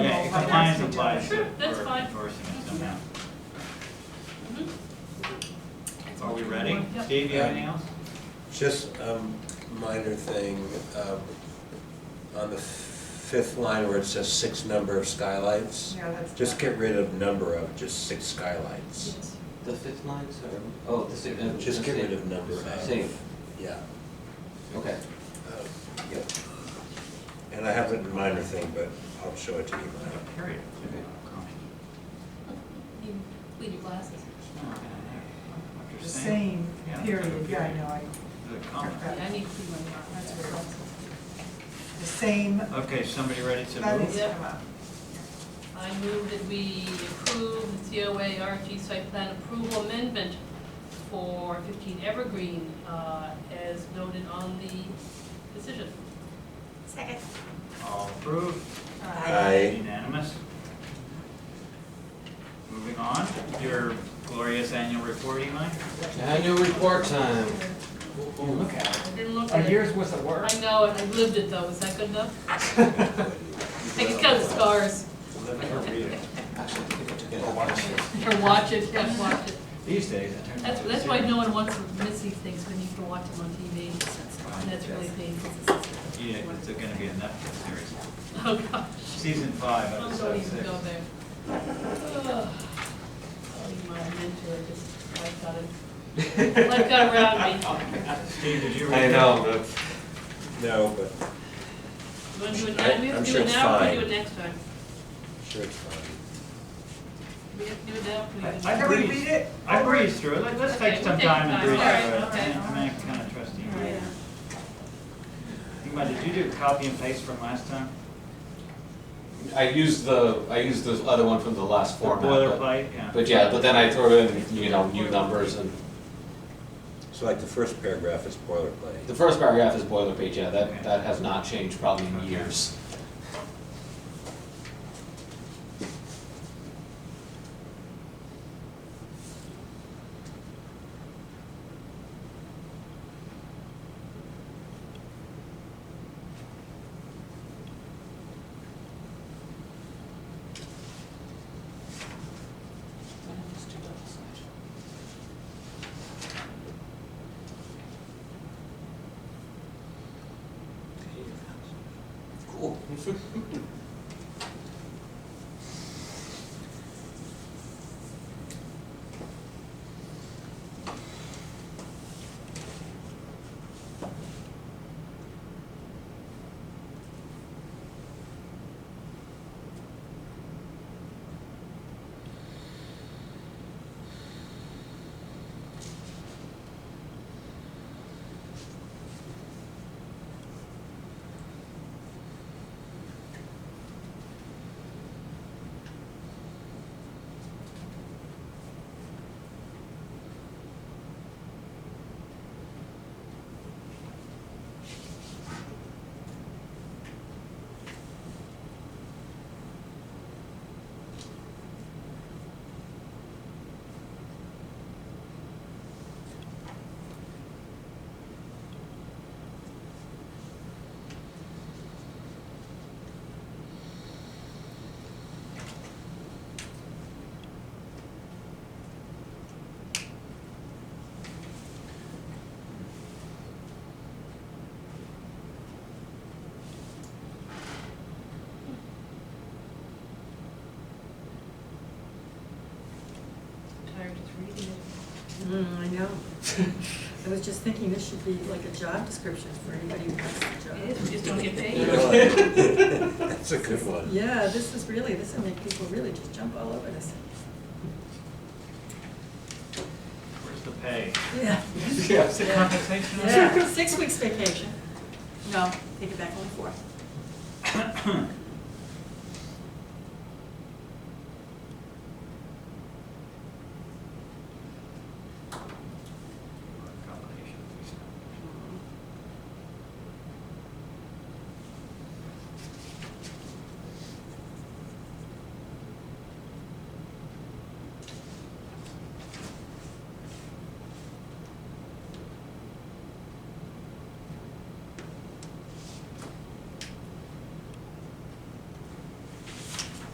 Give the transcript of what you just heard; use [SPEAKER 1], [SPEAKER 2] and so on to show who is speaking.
[SPEAKER 1] compliance applies for
[SPEAKER 2] Sure, that's fine.
[SPEAKER 1] endorsing it somehow.
[SPEAKER 2] Mhm.
[SPEAKER 1] Are we ready?
[SPEAKER 2] Yep.
[SPEAKER 1] Steve, you have anything else?
[SPEAKER 3] Just a minor thing, um, on the fifth line where it says six number of skylights,
[SPEAKER 4] Yeah, that's.
[SPEAKER 3] just get rid of number of, just six skylights.
[SPEAKER 5] The fifth line, sorry, oh, the sixth.
[SPEAKER 3] Just get rid of number of.
[SPEAKER 5] Save,
[SPEAKER 3] Yeah.
[SPEAKER 5] okay.
[SPEAKER 3] um, Yep. And I have a minor thing, but I'll show it to you later.
[SPEAKER 1] Period.
[SPEAKER 5] Okay.
[SPEAKER 2] You clean your glasses.
[SPEAKER 4] The same
[SPEAKER 1] Yeah,
[SPEAKER 4] period,
[SPEAKER 1] period.
[SPEAKER 4] yeah, I know, I,
[SPEAKER 1] The comment.
[SPEAKER 2] Yeah, I need to clean my glasses.
[SPEAKER 4] That's
[SPEAKER 2] glasses.
[SPEAKER 4] the same,
[SPEAKER 1] Okay, somebody ready to
[SPEAKER 4] that
[SPEAKER 1] move?
[SPEAKER 4] needs to come up.
[SPEAKER 2] I move that we approve the COA RG site plan approval amendment for 15 Evergreen uh, as noted on the decision.
[SPEAKER 6] Second.
[SPEAKER 1] All approved?
[SPEAKER 3] Aye.
[SPEAKER 1] Unanimous? Moving on, your glorious annual report, Eli?
[SPEAKER 5] Annual report time.
[SPEAKER 1] Look at it.
[SPEAKER 2] I didn't look
[SPEAKER 1] A
[SPEAKER 2] at it.
[SPEAKER 1] year's worth of work.
[SPEAKER 2] I know, and I lived it though, is that good enough? I can count the scars.
[SPEAKER 1] Living or breathing.
[SPEAKER 5] Actually, I think I took it out.
[SPEAKER 2] Or watch it, yeah, watch it.
[SPEAKER 1] These days, it turns
[SPEAKER 2] That's,
[SPEAKER 1] into a
[SPEAKER 2] that's why
[SPEAKER 1] series.
[SPEAKER 2] no one wants to miss these things when you can watch them on TV. And that's really painful.
[SPEAKER 1] Yeah, it's gonna be a Netflix series.
[SPEAKER 2] Oh, gosh.
[SPEAKER 1] Season five,
[SPEAKER 2] I'm going
[SPEAKER 1] episode
[SPEAKER 2] to even
[SPEAKER 1] six.
[SPEAKER 2] go there. Oh, my mentor just, life got it, life got around me.
[SPEAKER 1] Steve, did you read
[SPEAKER 5] I
[SPEAKER 1] that?
[SPEAKER 5] know, but
[SPEAKER 3] No, but
[SPEAKER 2] You want to do it
[SPEAKER 3] I-
[SPEAKER 2] now? We
[SPEAKER 3] I'm
[SPEAKER 2] have to do
[SPEAKER 3] sure
[SPEAKER 2] it
[SPEAKER 3] it's
[SPEAKER 2] now, or we
[SPEAKER 3] fine.
[SPEAKER 2] do it next time?
[SPEAKER 3] sure it's fine.
[SPEAKER 2] We have to do it now, or we do it
[SPEAKER 1] I-
[SPEAKER 2] next
[SPEAKER 4] Can we
[SPEAKER 1] breezed-
[SPEAKER 4] read it?
[SPEAKER 1] I breezed through it, Let- let's
[SPEAKER 2] Okay,
[SPEAKER 1] take some
[SPEAKER 2] we'll take
[SPEAKER 1] time
[SPEAKER 2] the
[SPEAKER 1] and
[SPEAKER 2] time.
[SPEAKER 1] breeze through
[SPEAKER 2] Alright,
[SPEAKER 1] it.
[SPEAKER 2] okay.
[SPEAKER 1] Yeah, I mean, I kinda trust you.
[SPEAKER 2] Yeah.
[SPEAKER 1] Ingmar, did you do copy and paste from last time?
[SPEAKER 7] I used the, I used the other one from the last
[SPEAKER 1] The
[SPEAKER 7] format. but-
[SPEAKER 1] Boilerplate, yeah.
[SPEAKER 7] But yeah, but then I throw in, you know, new numbers and,
[SPEAKER 3] So like the first paragraph is boilerplate.
[SPEAKER 7] the first paragraph is boilerplate, yeah,
[SPEAKER 1] Okay.
[SPEAKER 7] that, that has not changed probably in
[SPEAKER 1] Okay.
[SPEAKER 7] years.
[SPEAKER 5] Cool.
[SPEAKER 2] time. Tired just reading
[SPEAKER 8] Mm, I know. I was just thinking this should be like a job description for anybody who wants a
[SPEAKER 2] it.
[SPEAKER 8] job.
[SPEAKER 2] It is, we just don't get paid.
[SPEAKER 3] That's a good one.
[SPEAKER 8] Yeah, this is really, this will make people really just jump all over this.
[SPEAKER 1] Where's the pay?
[SPEAKER 8] Yeah.
[SPEAKER 1] What's the
[SPEAKER 8] Yeah.
[SPEAKER 1] compensation?
[SPEAKER 8] Yeah, six weeks vacation. No, take it back, only four.